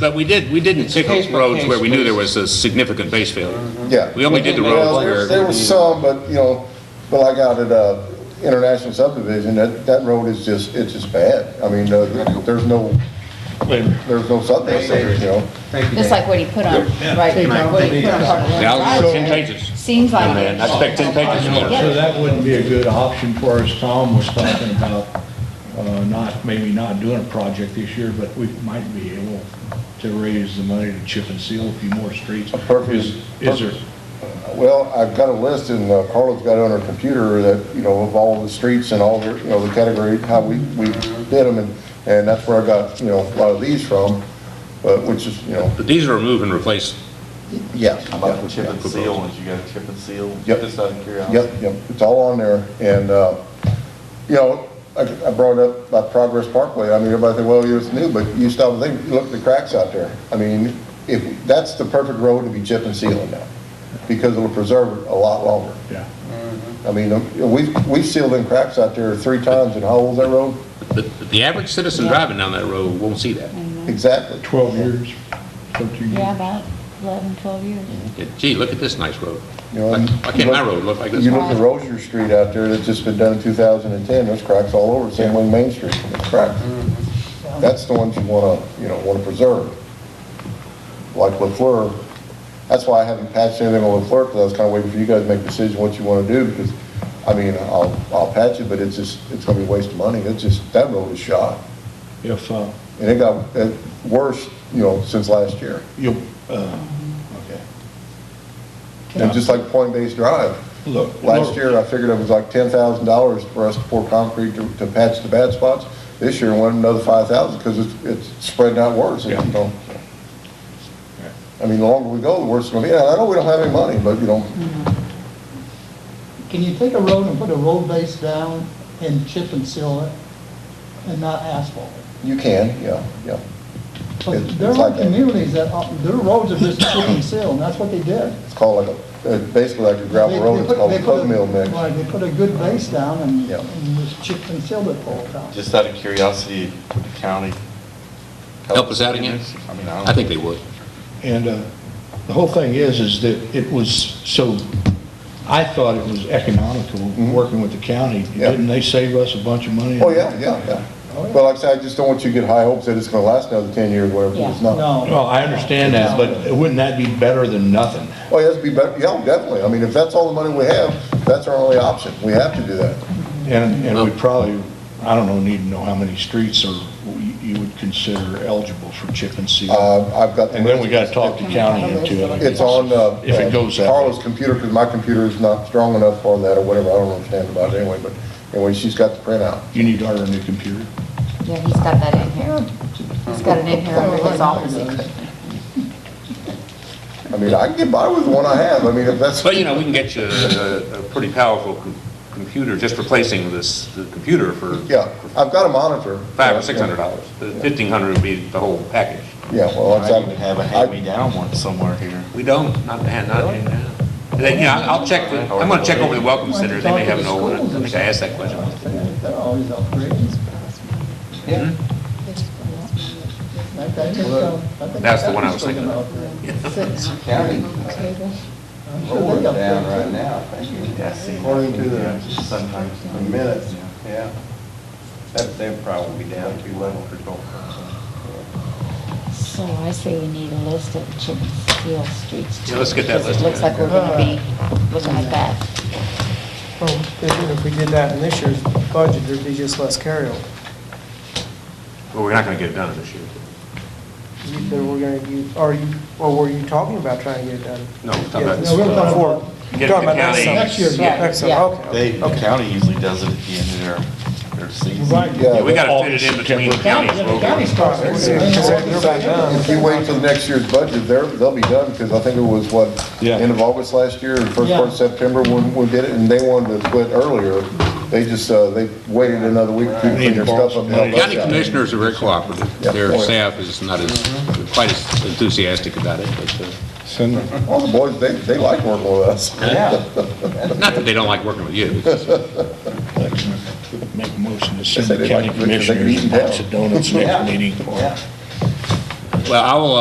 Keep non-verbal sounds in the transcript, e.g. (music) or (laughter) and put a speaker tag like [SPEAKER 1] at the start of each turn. [SPEAKER 1] But we did, we didn't pick
[SPEAKER 2] case by
[SPEAKER 1] roads
[SPEAKER 2] case
[SPEAKER 1] where we knew there
[SPEAKER 2] basis.
[SPEAKER 1] was a significant base failure.
[SPEAKER 3] Yeah.
[SPEAKER 1] We only did the
[SPEAKER 3] Well,
[SPEAKER 1] roads
[SPEAKER 3] there-
[SPEAKER 1] where.
[SPEAKER 3] There was some, but, you know, well, I got at, uh, International Subdivision, that, that road is just, it's just bad. I mean, uh, there's no, there's no subdivision, you know?
[SPEAKER 2] Thank you,
[SPEAKER 4] Just
[SPEAKER 2] Dan.
[SPEAKER 4] like what he put on, right, what he put on part of the
[SPEAKER 1] Now,
[SPEAKER 4] right
[SPEAKER 1] it's
[SPEAKER 4] of
[SPEAKER 1] ten
[SPEAKER 4] way.
[SPEAKER 1] pages.
[SPEAKER 4] Seems like
[SPEAKER 1] Man,
[SPEAKER 4] it.
[SPEAKER 1] I expect ten pages more.
[SPEAKER 4] Yeah.
[SPEAKER 5] So that wouldn't be a good option for us. Tom was talking about uh, not, maybe not doing a project this year, but we might be able to raise the money to chip and seal a few more streets.
[SPEAKER 3] purpose-
[SPEAKER 5] Is is there,
[SPEAKER 3] Well, I've got a list, and uh, Carla's got it on her computer, that, you know, of all the streets and all the, you know, the category, how we, we did them, and, and that's where I got, you know, a lot of these from, but, which is, you know,
[SPEAKER 1] But these are remove and replace.
[SPEAKER 3] yeah.
[SPEAKER 6] How about the chip and seal, ones? you got a chip and seal?
[SPEAKER 3] Yep.
[SPEAKER 6] Just out of curiosity.
[SPEAKER 3] Yep, yep, it's all on there, and, uh, you know, I, I brought up about Progress Parkway, I mean, everybody said, well, it's new, but you stop and think, look at the cracks out there. I mean, if, that's the perfect road to be chip and sealing now, because it'll preserve it a lot longer.
[SPEAKER 5] yeah.
[SPEAKER 3] I mean, um, we've, we've sealed in cracks out there three times in how old's that road?
[SPEAKER 1] But the average citizen driving down that road won't see that.
[SPEAKER 3] Exactly.
[SPEAKER 5] 12 years, 13
[SPEAKER 4] Yeah,
[SPEAKER 5] years.
[SPEAKER 4] about 11, 12 years.
[SPEAKER 2] Mm-hmm.
[SPEAKER 1] Gee, look at this nice road.
[SPEAKER 3] You know,
[SPEAKER 1] Why
[SPEAKER 3] and
[SPEAKER 1] why can't my road look like this?
[SPEAKER 3] Um, You look at Rosier Street out there, that's just been done in 2010, there's cracks all over, same way Main Street, there's cracks.
[SPEAKER 1] Mm-hmm.
[SPEAKER 3] That's the ones you wanna, you know, wanna preserve. Like LaFleur, that's why I haven't patched anything on LaFleur, because I was kinda waiting for you guys to make a decision what you wanna do, because, I mean, I'll, I'll patch it, but it's just, it's gonna be a waste of money, it's just, that road is shot.
[SPEAKER 5] If, uh,
[SPEAKER 3] And it got uh, worse, you know, since last year.
[SPEAKER 5] you'll, uh, okay.
[SPEAKER 3] And just like Point Base Drive,
[SPEAKER 5] Look.
[SPEAKER 3] last year, I figured it was like ten thousand dollars for us to pour concrete to, to patch the bad spots. This year, it went another five thousand, because it's, it's spreading out worse, you know? I mean, the longer we go, the worse it's gonna be. And I know we don't have any money, but, you know,
[SPEAKER 7] Can you take a road and put a road base down and chip and seal it and not asphalt it?
[SPEAKER 3] you can, yeah, yeah.
[SPEAKER 7] But
[SPEAKER 3] It's-
[SPEAKER 7] there
[SPEAKER 3] it's
[SPEAKER 7] are
[SPEAKER 3] like that.
[SPEAKER 7] communities that, are- their roads are just chip and seal, and that's what they did.
[SPEAKER 3] It's called like a, uh, basically like a gravel
[SPEAKER 7] They-
[SPEAKER 3] road,
[SPEAKER 7] they
[SPEAKER 3] it's
[SPEAKER 7] put-
[SPEAKER 3] called
[SPEAKER 7] they
[SPEAKER 3] a
[SPEAKER 7] put
[SPEAKER 3] plug mill mix.
[SPEAKER 7] Right, they put a good base down and,
[SPEAKER 3] Yeah.
[SPEAKER 7] and just chip and sealed it the whole time.
[SPEAKER 6] Just out of curiosity, would the county?
[SPEAKER 1] Help us out again?
[SPEAKER 6] I mean, I
[SPEAKER 1] I think
[SPEAKER 6] don't.
[SPEAKER 1] they would.
[SPEAKER 5] And uh, the whole thing is, is that it was so, I thought it was economical, working with the county.
[SPEAKER 3] Mm-hmm. Yeah.
[SPEAKER 5] Didn't they save us a bunch of money?
[SPEAKER 3] Oh, yeah, yeah, yeah.
[SPEAKER 7] Oh, yeah.
[SPEAKER 3] Well, like I said, I just don't want you to get high hopes that it's gonna last another ten years, whatever,
[SPEAKER 4] Yeah.
[SPEAKER 3] it's not.
[SPEAKER 5] Well, I understand that, but wouldn't that be better than nothing?
[SPEAKER 3] Oh, yes, be better, yeah, definitely. I mean, if that's all the money we have, that's our only option. We have to do that.
[SPEAKER 5] And, and we probably, I don't know, need to know how many streets are, you you would consider eligible for chip and seal.
[SPEAKER 3] Uh, I've got.
[SPEAKER 5] And then we gotta talk to county into it.
[SPEAKER 3] It's on, uh.
[SPEAKER 5] If it goes that way.
[SPEAKER 3] Carla's computer, because my computer is not strong enough on that or whatever. I don't understand about it anyway, but anyway, she's got the printout.
[SPEAKER 5] You need to order a new computer.
[SPEAKER 4] Yeah, he's got that in here. He's got it in here under his office equipment.
[SPEAKER 3] I mean, I can get by with the one I have. I mean, if that's.
[SPEAKER 1] But, you know, we can get you a, a pretty powerful com- computer, just replacing this, the computer for
[SPEAKER 3] Yeah, I've got a monitor.
[SPEAKER 1] five or six hundred dollars. Fifteen hundred would be the whole package.
[SPEAKER 3] Yeah, well,
[SPEAKER 6] I
[SPEAKER 3] I
[SPEAKER 6] even have a hand-me-down one somewhere here.
[SPEAKER 1] We don't, not, not, They- you know, I'll I'll check, with- I'm gonna check over the Welcome Center, they may have an old one, I think I asked that question.
[SPEAKER 7] They're always upgrading.
[SPEAKER 1] Hmm?
[SPEAKER 2] Yeah.
[SPEAKER 7] I think, um, I think
[SPEAKER 1] That's the one I was
[SPEAKER 7] still
[SPEAKER 1] thinking
[SPEAKER 7] gonna
[SPEAKER 1] of. (laughs)
[SPEAKER 7] upgrade.
[SPEAKER 2] County,
[SPEAKER 7] I'm sure
[SPEAKER 2] rolling
[SPEAKER 7] they upgrade
[SPEAKER 2] down right
[SPEAKER 7] too.
[SPEAKER 2] now, thank you.
[SPEAKER 6] Yeah, see.
[SPEAKER 2] According to the-
[SPEAKER 6] Sometimes.
[SPEAKER 2] The minutes, yeah. That, they'd probably be down two levels or something.
[SPEAKER 4] So I say we need a list of chip and seal streets. too,
[SPEAKER 1] Yeah, let's get that list
[SPEAKER 4] because It looks like we're gonna be looking at that.
[SPEAKER 8] Well, if if we did that in this year's budget, there'd be just less carryover.
[SPEAKER 1] Well, we're not gonna get it done this year.
[SPEAKER 8] You said we're gonna use, are you, or were you talking about trying to get it done?
[SPEAKER 1] No, we're talking about-
[SPEAKER 8] Yeah, we were talking about-
[SPEAKER 1] Get it
[SPEAKER 8] talking
[SPEAKER 1] to
[SPEAKER 8] about next
[SPEAKER 1] county.
[SPEAKER 8] summer.
[SPEAKER 1] Next
[SPEAKER 4] year, yeah,
[SPEAKER 8] Next summer,
[SPEAKER 4] yeah.
[SPEAKER 8] okay.
[SPEAKER 6] They, the
[SPEAKER 8] okay.
[SPEAKER 6] county usually does it at the end of their, their season.
[SPEAKER 1] Yeah, we
[SPEAKER 3] Yeah,
[SPEAKER 1] gotta fit it in between counties.
[SPEAKER 8] Yeah, 'cause they're- they're about done.
[SPEAKER 3] if you wait till next year's budget, they're, they'll be done, because I think it was what?
[SPEAKER 5] Yeah.
[SPEAKER 3] End of August last year, and first
[SPEAKER 7] Yeah.
[SPEAKER 3] part of September, when we did it, and they wanted to quit earlier. They just, uh, they waited another week to clean their stuff up. and help us
[SPEAKER 1] County
[SPEAKER 3] out.
[SPEAKER 1] commissioners are very cooperative,
[SPEAKER 3] Yeah.
[SPEAKER 1] their staff is not as, quite as enthusiastic about it, but, uh,
[SPEAKER 5] Send,
[SPEAKER 3] All the boys, they, they like working with us.
[SPEAKER 1] not that they don't like working with you, (laughs) it's just-
[SPEAKER 5] make a motion to
[SPEAKER 3] They
[SPEAKER 5] send
[SPEAKER 3] say
[SPEAKER 5] the
[SPEAKER 3] they like
[SPEAKER 5] county
[SPEAKER 3] to- they can eat
[SPEAKER 5] commissioners a
[SPEAKER 3] now.
[SPEAKER 5] box of donuts next meeting.
[SPEAKER 2] Yeah.
[SPEAKER 1] Well, I will, uh,